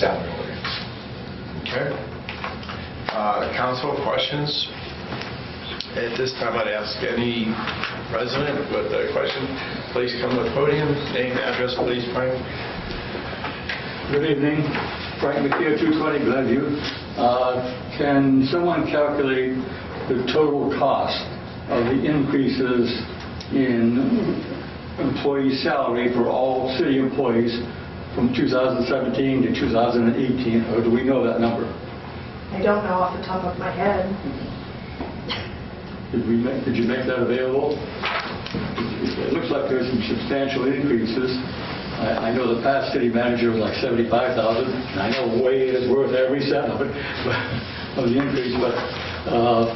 salary ordinance. Okay? Uh, Council questions? At this time, I'd ask any resident with a question, please come to the podium, name, address, please, Frank. Good evening, Frank McKeon, 220 Glenview. Uh, Can someone calculate the total cost of the increases in employee salary for all city employees from 2017 to 2018, or do we know that number? I don't know off the top of my head. Did we make, did you make that available? It looks like there's some substantial increases. I, I know the past city manager was like 75,000, and I know way is worth every cent of it, of the increase, but, uh,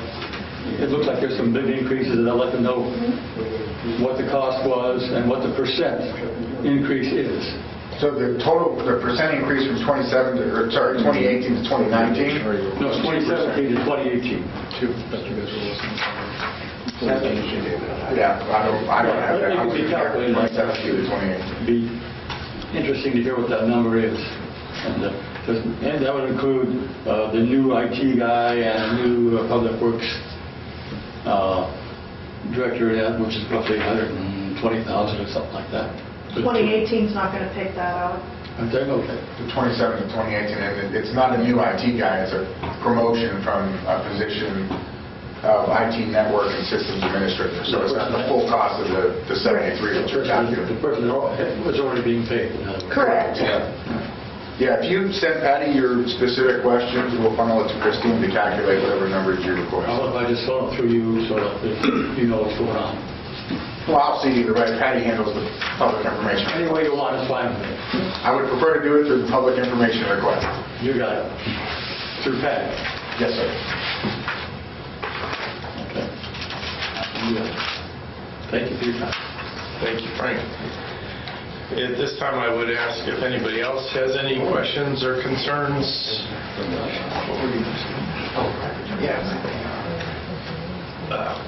it looks like there's some big increases, and I'd like to know what the cost was and what the percent increase is. So the total, the percent increase from 27 to, or sorry, 2018 to 2019? No, it's 2017 to 2018. Yeah, I don't, I don't have that. It could be calculated. 2017 to 2018. be interesting to hear what that number is. And uh, does- and that would include uh, the new IT guy and new uh, Public Works uh, director, yeah, which is roughly 120,000 or something like that. 2018's not going to pick that up. I'm saying, okay. The 27 to 2018, and it- it's not a new IT guy, it's a promotion from a position of IT network and systems administrator. So it's not the full cost of the the 73 that The you're person- calculating. the person that was already being paid. in other words. Correct. Yeah, Yeah. if you send Patty your specific questions, we'll funnel it to Christine to calculate whatever numbers you request. How about if I just saw it through you so that you know what's going on? Well, I'll see either way, Patty handles the public information. Any way you want, it's fine with me. I would prefer to do it through the public information request. You got it. Through Patty. Yes, sir. Thank you for your time. Thank you, Frank. At this time, I would ask if anybody else has any questions or concerns. Yes. Uh,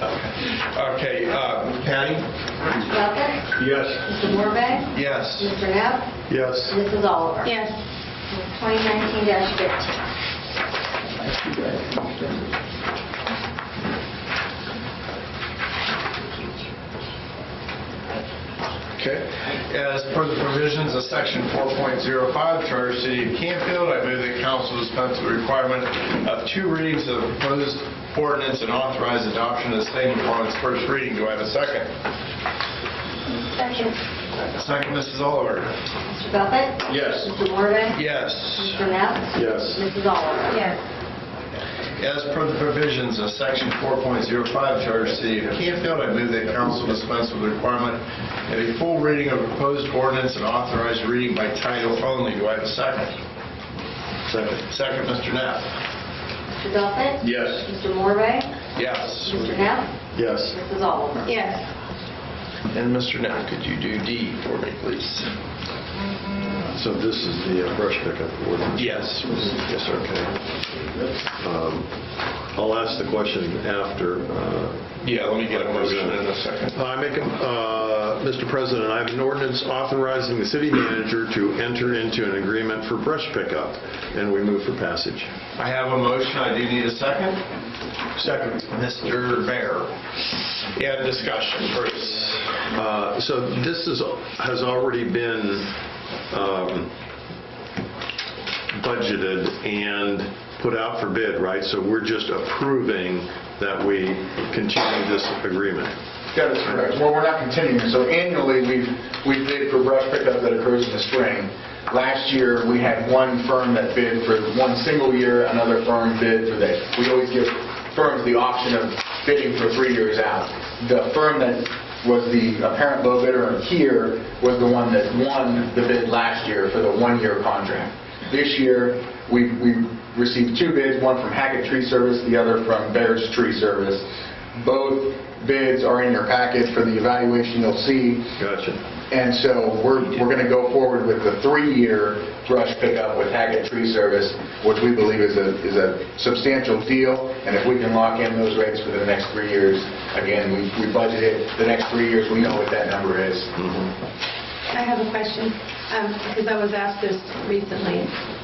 Okay, Okay, uh, Patty? Mr. Welker? Yes. Mr. Morvay? Yes. Mr. Neff? Yes. Mrs. Oliver? Yes. 2019-15. Okay. As per the provisions of Section 4.05 Charter of the City of Campfield, I move that council dispense with the requirement of two readings of the proposed ordinance and authorize adoption of the same upon its first reading. Do I have a second? Second. Second, Mrs. Oliver. Mr. Buffett? Yes. Mr. Morvay? Yes. Mr. Neff? Yes. Mrs. Oliver? Yes. As per the provisions of Section 4.05 Charter of the City of Campfield, I move that council dispense with the requirement of a full reading of proposed ordinance and authorized reading by title only. Do I have a second? Second. Second, Mr. Knapp. Mr. Buffett? Yes. Mr. Morvay? Yes. Mr. Neff? Yes. Mrs. Oliver? Yes. And Mr. Knapp, could you do D for me, please? So this is the uh, brush pickup ordinance? Yes. Yes, sir. Okay. Um, I'll ask the question after. uh, Yeah, let me get a motion in a second. I make, a- uh, Mr. President, I have an ordinance authorizing the city manager to enter into an agreement for brush pickup, and we move for passage. I have a motion, I do need a second. Second. Mr. Bear. And discussion, Bruce. Uh, So this is, has already been um, budgeted and put out for bid, right? So we're just approving that we continue this agreement. That is correct. Well, we're not continuing, so annually, we've, we bid for brush pickup that occurs in the spring. Last year, we had one firm that bid for one single year, another firm bid for that. We always give firms the option of bidding for three years out. The firm that was the apparent low bidder here was the one that won the bid last year for the one-year contract. This year, we, we received two bids, one from Hackett Tree Service, the other from Bear's Tree Service. Both bids are in your packet for the evaluation you'll see. Gotcha. And so we're, we're going to go forward with the three-year brush pickup with Hackett Tree Service, which we believe is a, is a substantial deal. And if we can lock in those rates for the next three years, again, we, we budgeted the next three years, we know what that number is. I have a question, um, because I was asked this recently.